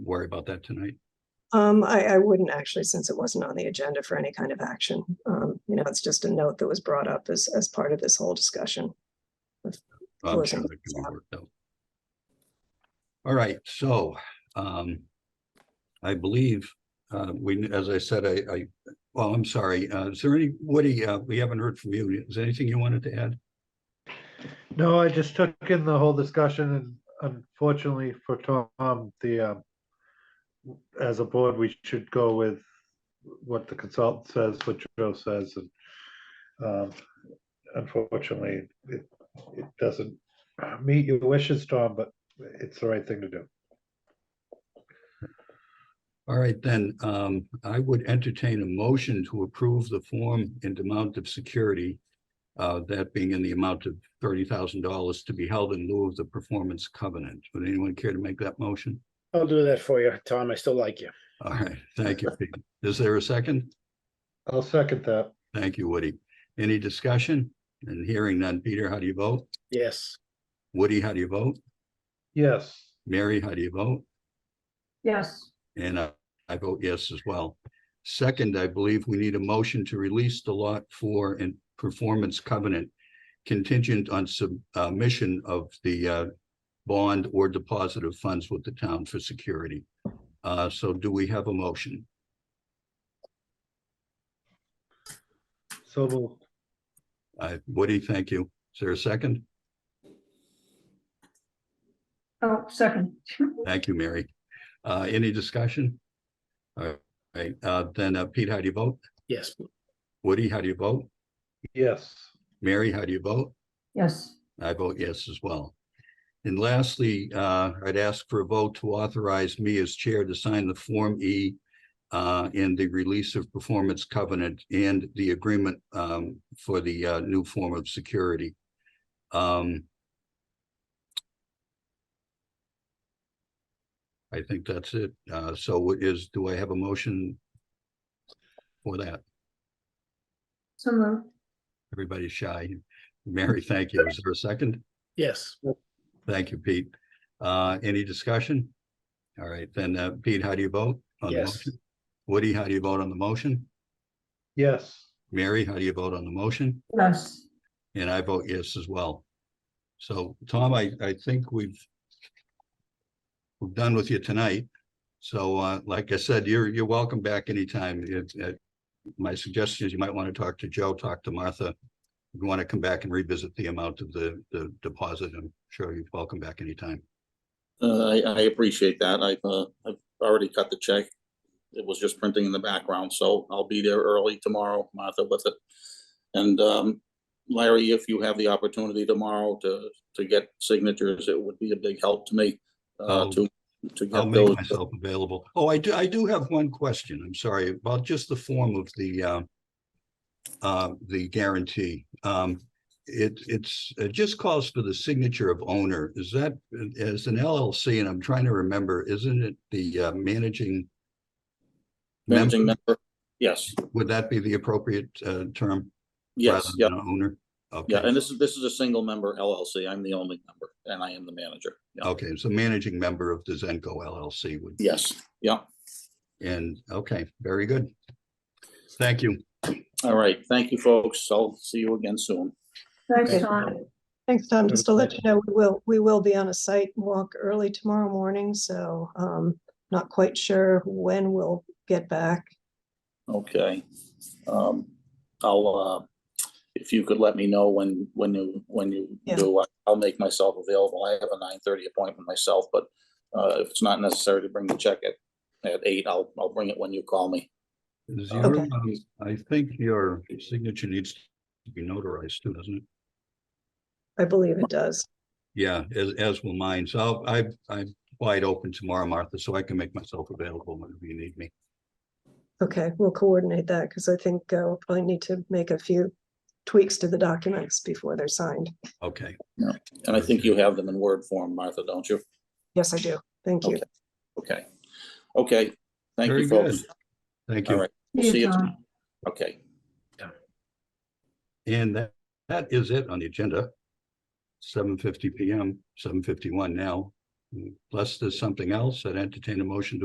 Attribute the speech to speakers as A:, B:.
A: worry about that tonight.
B: Um, I, I wouldn't actually, since it wasn't on the agenda for any kind of action. Um, you know, it's just a note that was brought up as, as part of this whole discussion.
A: I'm sure
B: Closing.
A: that can be worked out. All right, so, um, I believe, uh, we, as I said, I, I, well, I'm sorry, uh, is there any, Woody, uh, we haven't heard from you. Is there anything you wanted to add?
C: No, I just took in the whole discussion and unfortunately for Tom, the, um, as a board, we should go with what the consultant says, what Joe says, and, um, unfortunately, it, it doesn't meet your wishes, Tom, but it's the right thing to do.
A: All right, then, um, I would entertain a motion to approve the form and amount of security. Uh, that being in the amount of thirty thousand dollars to be held in lieu of the performance covenant. Would anyone care to make that motion?
D: I'll do that for you, Tom. I still like you.
A: All right, thank you. Pete. Is there a second?
C: I'll second that.
A: Thank you, Woody. Any discussion? And hearing none. Peter, how do you vote?
D: Yes.
A: Woody, how do you vote?
C: Yes,
A: Mary, how do you vote?
E: Yes,
A: And I, I vote yes as well. Second, I believe we need a motion to release the lot for and performance covenant contingent on submission of the uh, bond or deposit of funds with the town for security. Uh, So do we have a motion?
C: so we'll,
A: Uh, Woody, thank you. Is there a second?
E: oh, second.
A: Thank you, Mary. Uh, any discussion? All right, uh, then, uh, Pete, how do you vote?
D: Yes.
A: Woody, how do you vote?
C: yes,
A: Mary, how do you vote?
E: Yes,
A: I vote yes as well. And lastly, uh, I'd ask for a vote to authorize me as chair to sign the Form E uh, in the release of performance covenant and the agreement, um, for the, uh, new form of security. Um, I think that's it. Uh, so what is, do I have a motion for that?
E: so moved.
A: Everybody's shy. Mary, thank you. Is there a second?
D: Yes.
A: Thank you, Pete. Uh, any discussion? All right, then, uh, Pete, how do you vote? on the
D: Yes.
A: motion? Woody, how do you vote on the motion?
C: yes.
A: Mary, how do you vote on the motion?
E: Yes,
A: And I vote yes as well. So, Tom, I, I think we've we're done with you tonight. So, uh, like I said, you're, you're welcome back anytime. It, it, my suggestion is you might want to talk to Joe, talk to Martha. If you want to come back and revisit the amount of the, the deposit, I'm sure you're welcome back anytime.
F: Uh, I, I appreciate that. I've, uh, I've already cut the check. It was just printing in the background, so I'll be there early tomorrow, Martha, with it. And, um, Larry, if you have the opportunity tomorrow to, to get signatures, it would be a big help to me, uh,
A: I'll-
F: to, to
A: I'll
F: get
A: make
F: those.
A: myself available. Oh, I do, I do have one question. I'm sorry about just the form of the uh. Uh, the guarantee. Um, it, it's, it just calls for the signature of owner. Is that, as an LLC, and I'm trying to remember, isn't it the uh, managing?
F: Managing
A: member?
F: member, yes,
A: Would that be the appropriate uh term?
F: yes,
A: rather
F: yeah,
A: than Owner? Okay.
F: yeah. And this is, this is a single member LLC. I'm the only member and I am the manager. Yeah.
A: Okay, so managing member of the Zenco LLC would,
F: Yes, yeah.
A: and, okay, very good. Thank you.
F: All right. Thank you, folks. I'll see you again soon.
E: thanks,
A: Okay.
E: Tom.
B: Thanks, Tom. Just to let you
C: Okay.
B: know, we will, we will be on a site walk early tomorrow morning, so, um, not quite sure when we'll get back.
F: Okay. Um, I'll, uh, if you could let me know when, when you, when you
B: Yeah.
F: do, I- I'll make myself available. I have a nine thirty appointment myself, but uh, if it's not necessary to bring the check at, at eight, I'll, I'll bring it when you call me.
A: Is
F: Okay.
A: your, um, I think your signature needs to be notarized too, doesn't it?
B: I believe it does.
A: Yeah, as, as will mine. So I'll- I, I'm wide open tomorrow, Martha, so I can make myself available whenever you need me.
B: Okay, we'll coordinate that because I think uh, we'll probably need to make a few tweaks to the documents before they're signed.
A: Okay,
F: And I think you have them in Word form, Martha, don't you?
B: Yes, I do. Thank you.
F: Okay. Okay. Okay. Thank
A: Very
F: you,
A: good.
F: folks.
A: thank
F: All
A: you.
F: right. See you.
E: Tom.
F: Okay.
A: And that, that is it on the agenda. Seven fifty PM, seven fifty-one now. Unless there's something else, I'd entertain a motion to